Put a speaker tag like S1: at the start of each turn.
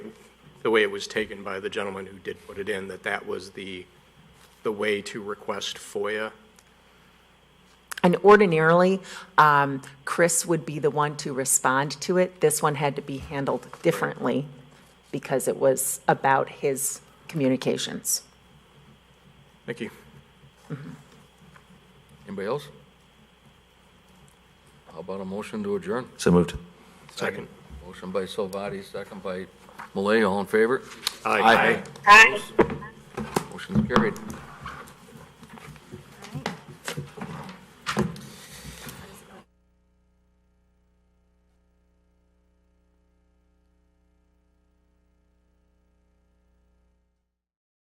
S1: the way it was taken by the gentleman who did put it in, that that was the, the way to request FOIA.
S2: And ordinarily, um, Chris would be the one to respond to it. This one had to be handled differently because it was about his communications.
S1: Thank you.
S3: Anybody else? How about a motion to adjourn?
S4: So moved.
S1: Second.
S3: Motion by Salvati, second by Malay, all in favor?
S1: Aye.
S3: Motion's carried.